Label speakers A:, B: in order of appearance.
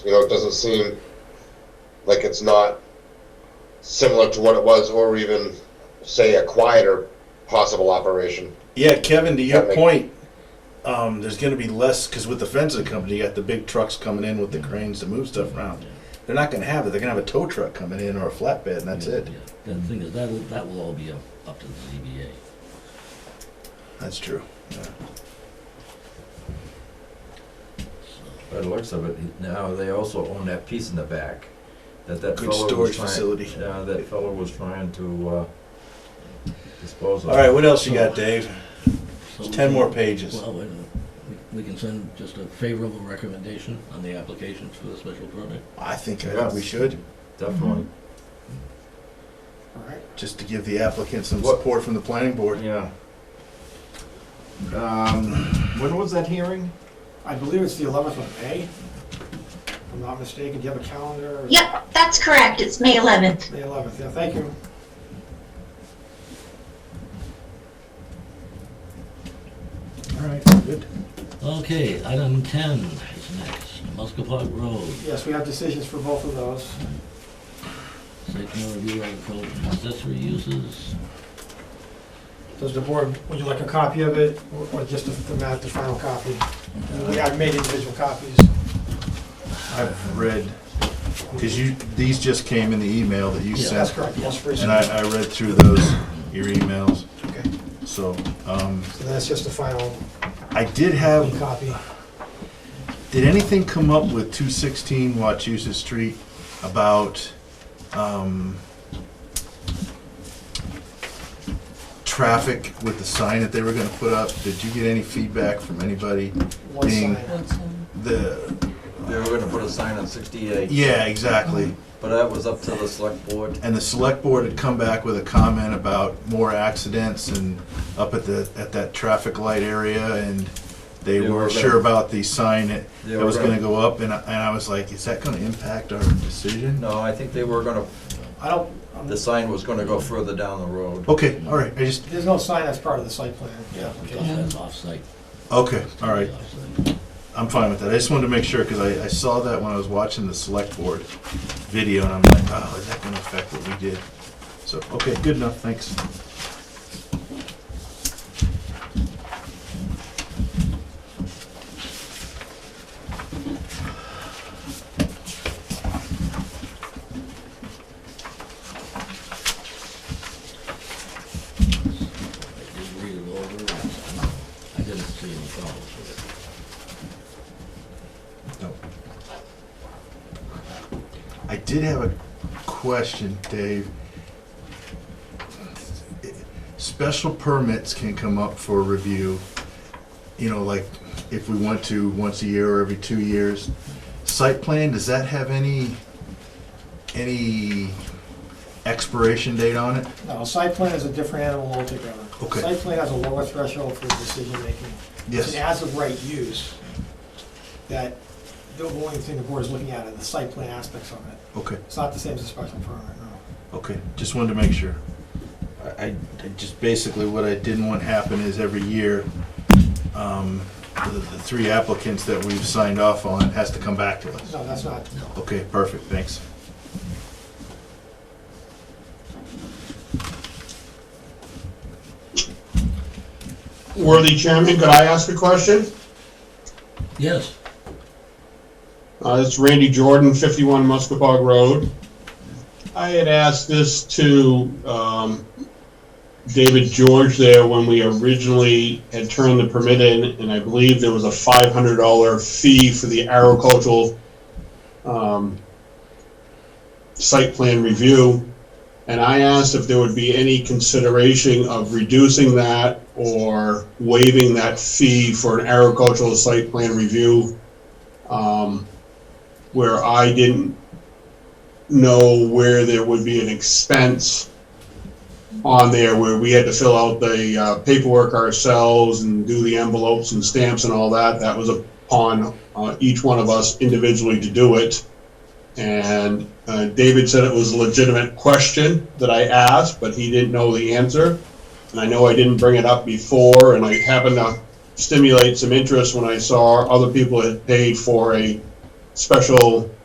A: You know, it doesn't seem like it's not similar to what it was, or even say a quieter possible operation.
B: Yeah, Kevin, to
A: Yeah,
B: your
A: like-
B: point, um, there's going to be less because with the fencing company, you got the big trucks coming in with the cranes to move stuff around. They're not going to have it. They're going to have a tow truck coming in or a flatbed, and that's
C: Yeah,
B: it.
C: yeah. The thing is, that'll, that will all be up, up to the ZBA.
B: That's true. Yeah.
D: By the looks of it, now they also own that piece in the back, that that
B: Good
D: fellow was
B: storage
D: trying-
B: facility.
D: Yeah, that fellow was trying to, uh, dispose of.
B: All right, what else you got, Dave?
C: So
B: It's 10 more
C: we-
B: pages.
C: Well, wait a minute. We- we can send just a favorable recommendation on the application for the special permit.
B: I think I
D: Yes.
B: we should,
D: Definitely,
B: just to give the applicant some
D: What-
B: support from the planning board.
D: yeah. Um, when was that hearing?
E: I believe it's the 11th of May, if I'm not mistaken. Do you have a calendar?
F: Yep, that's correct. It's May 11th.
E: May 11th, yeah, thank you.
B: All right, good.
C: Okay, item ten is next, Muskapog Road,
E: Yes, we have decisions for both of those.
C: site plan review of code and accessory uses.
E: Does the board, would you like a copy of it, or- or just the the map, the final copy? We have made individual copies.
B: I've read, because you, these just came in the email that you
C: Yeah.
B: sent.
E: That's correct, yes, for each.
B: And I, I read through those, your emails,
E: Okay,
B: so, um,
E: so that's just the final
B: I did have,
E: copy.
B: did anything come up with two sixteen Wachusett Street about, um, traffic with the sign that they were gonna put up? Did you get any feedback from anybody?
E: One
B: Being-
E: sign.
B: The,
D: They were gonna put a sign on sixty-eight,
B: yeah, exactly.
D: but that was up to the select board.
B: And the select board had come back with a comment about more accidents and up at the, at that traffic light area and they
D: They
B: were
D: were
B: sure
D: gonna-
B: about the sign that,
D: They
B: that
D: were
B: was gonna
D: gonna-
B: go up and I, and I was like, is that gonna impact our decision?
D: No, I think they were gonna,
E: I don't, um, I'm-
D: the sign was gonna go further down the road.
B: Okay, all right, I just,
E: there's no sign that's part of the site plan.
C: Because that's off-site.
B: okay, all right,
C: Off-site.
B: I'm fine with that. I just wanted to make sure, cause I, I saw that when I was watching the select board video and I'm like, oh, is that gonna affect what we did? So, okay, good enough, thanks.
C: I did read it over, and I- I didn't see any problems with it.
B: No. I did have a question, Dave. Special permits can come up for review, you know, like if we want to once a year or every two years. Site plan, does that have any, any expiration date on it?
E: No, site plan is a different animal altogether.
B: Okay.
E: Site plan has a lower threshold for decision-making. It's an as-of-right use that the only thing the board is looking at are the site plan aspects of it.
B: Okay,
E: It's not the same as a special permit, no.
B: okay, just wanted to make sure. I, I- I just, basically what I didn't want happen is every year, um, the, the three applicants that we've signed off on has to come back to us.
E: No, that's not,
B: Okay, perfect, thanks.
G: Worthy Chairman, could I ask a question?
C: Yes,
G: Uh, it's Randy Jordan, 51 Muskapog Road. I had asked this to, um, David George there when we originally had turned the permit in, and I believe there was a $500 fee for the agricultural, um, site plan review. And I asked if there would be any consideration of reducing that or waiving that fee for an agricultural site plan review um, where I didn't know where there would be an expense on there where we had to fill out the uh, paperwork ourselves and do the envelopes and stamps and all that. That was upon uh, each one of us individually to do it. And uh, David said it was a legitimate question that I asked, but he didn't know the answer. And I know I didn't bring it up before, and I happened to stimulate some interest when I saw other people had paid for a special